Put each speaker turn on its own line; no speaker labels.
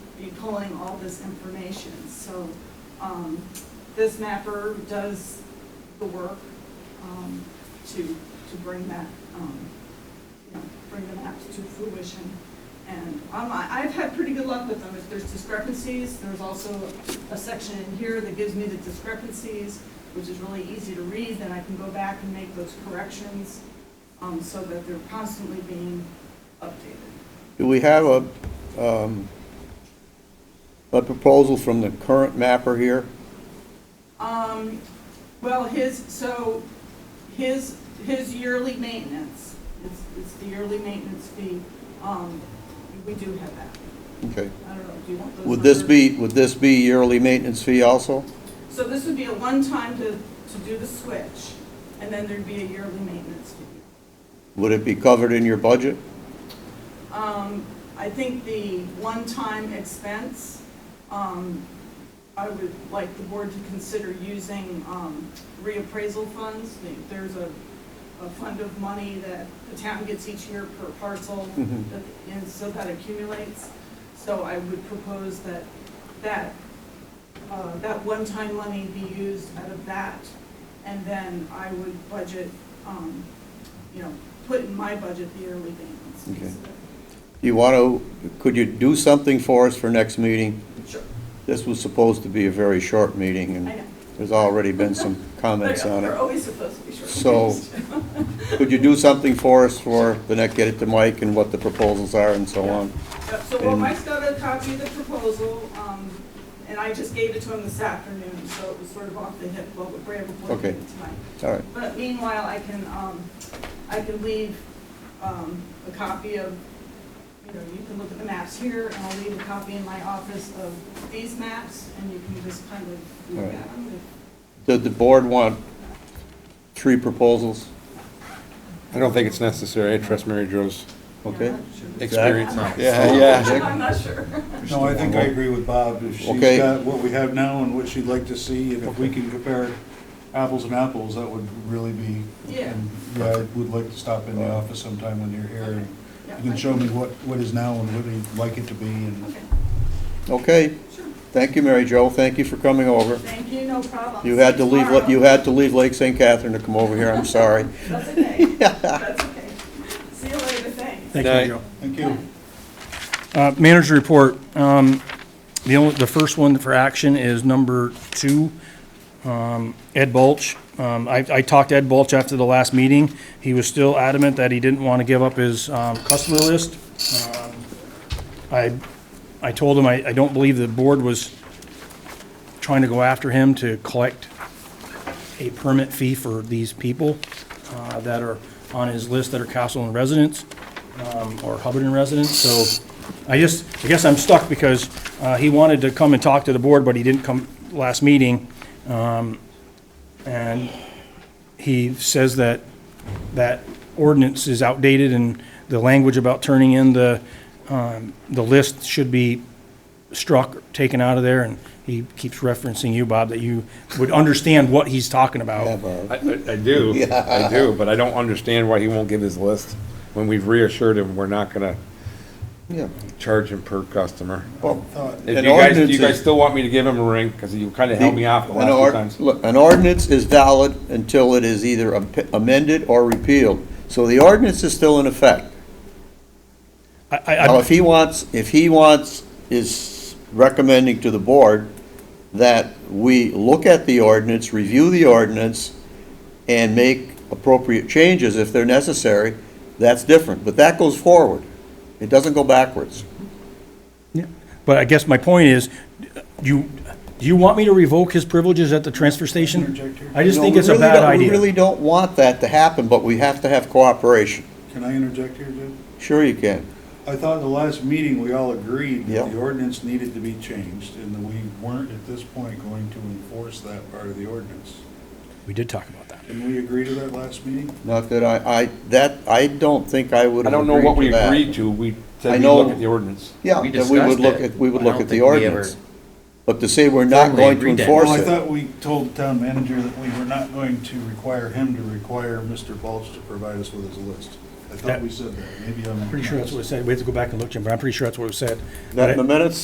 be pulling all this information. So um, this mapper does the work um, to, to bring that, um, you know, bring the maps to fruition. And um, I- I've had pretty good luck with them. If there's discrepancies, there's also a section in here that gives me the discrepancies, which is really easy to read, then I can go back and make those corrections um, so that they're constantly being updated.
Do we have a, um, a proposal from the current mapper here?
Um, well, his, so, his, his yearly maintenance, it's, it's the yearly maintenance fee, um, we do have that.
Okay.
I don't know, do you want those?
Would this
numbers?
be, would this be yearly maintenance fee also?
So this would be a one-time to, to do the switch, and then there'd be a yearly maintenance fee.
Would it be covered in your budget?
Um, I think the one-time expense, um, I would like the board to consider using, um, reappraisal funds. There's a, a fund of money that the town gets each year per parcel,
Mhm.
that- and so that accumulates. So I would propose that, that, uh, that one-time money be used out of that, and then I would budget, um, you know, put in my budget the yearly maintenance. piece of it.
You want to, could you do something for us for next meeting?
Sure.
This was supposed to be a very short meeting,
I know.
and there's already been some comments on
They're
it.
always supposed to be short.
So- Could you do something for us for the next, get it to Mike and what the proposals are and so on?
Yep, So, well,
And-
Mike's got a copy of the proposal, um, and I just gave it to him this afternoon, so it was sort of off the hip, but we were able to
Okay.
it tonight.
All right,
But meanwhile, I can, um, I can leave, um, a copy of, you know, you can look at the maps here, and I'll leave a copy in my office of these maps, and you can just kind of look
All right.
at them.
Did the board want three proposals?
I don't think it's necessary. I trust Mary Jo's
Okay.
experience on it.
Yeah, yeah.
I'm not sure.
No, I think I agree with Bob. If she's
Okay.
got what we have now and what she'd like to see, and if we can compare apples and apples, that would really be.
Yeah.
and, Yeah, I would like to stop in the office sometime when you're here, and
Yeah,
you
I-
can show me what, what is now and what we'd like it to be, and
Okay,
Okay,
sure.
thank you, Mary Jo, thank you for coming over.
Thank you, no problem.
You had to leave,
Tomorrow.
you had to leave Lake St. Catherine to come over here, I'm sorry.
That's okay. That's okay. See you later, thanks.
Thank
Night.
you, Joe.
thank you.
Uh, Manager report, um, the only, the first one for action is number two, um, Ed Bulch. Um, I, I talked to Ed Bulch after the last meeting. He was still adamant that he didn't want to give up his um, customer list. Um, I, I told him I, I don't believe the board was trying to go after him to collect a permit fee for these people uh, that are on his list that are Castleton residents um, or Hubbardton residents. So I just, I guess I'm stuck because uh, he wanted to come and talk to the board, but he didn't come last meeting. Um, And he says that that ordinance is outdated and the language about turning in the, um, the list should be struck, taken out of there. And he keeps referencing you, Bob, that you would understand what he's talking about.
Yeah, Bob.
I, I- I do, I do, but I don't understand why he won't give his list when we've reassured him we're not gonna
Yeah.
charge him per customer.
Well, uh,
If
An
you guys, do
ordinance
you guys
is-
still want me to give him a ring? Because you kind of held me off the
An
last
ord-
few times.
Look, an ordinance is valid until it is either am- amended or repealed. So the ordinance is still in effect.
I, I- I-
Now, if he wants, if he wants, is recommending to the board that we look at the ordinance, review the ordinance, and make appropriate changes if they're necessary, that's different. But that goes forward. It doesn't go backwards.
Yeah, But I guess my point is, you, do you want me to revoke his privileges at the transfer station?
Interject here?
I just
No,
think
we
it's a
really
bad
don't- We
idea.
really don't want that to happen, but we have to have cooperation.
Can I interject here, Jim?
Sure you can.
I thought in the last meeting, we all agreed that
Yep.
the ordinance needed to be changed, and that we weren't at this point going to enforce that part of the ordinance.
We did talk about that.
Didn't we agree to that last meeting?
Not that I, I, that, I don't think I would
I
have
don't
agreed to
know
that.
what we agreed to. We
I
said we
know-
look at the ordinance.
Yeah,
We
that we would
discussed
look
it.
at, we would
I
look
don't
at the
think we
ordinance.
ever-
But to say we're not
Totally
going to
agreed that.
enforce
Well, I
it,
thought we told town manager that we were not going to require him to require Mr. Balch to provide us with his list. I thought we said that, maybe I'm.
Pretty sure that's what it said. We have to go back and look, Jim, but I'm pretty sure that's what it said.
not in the minutes?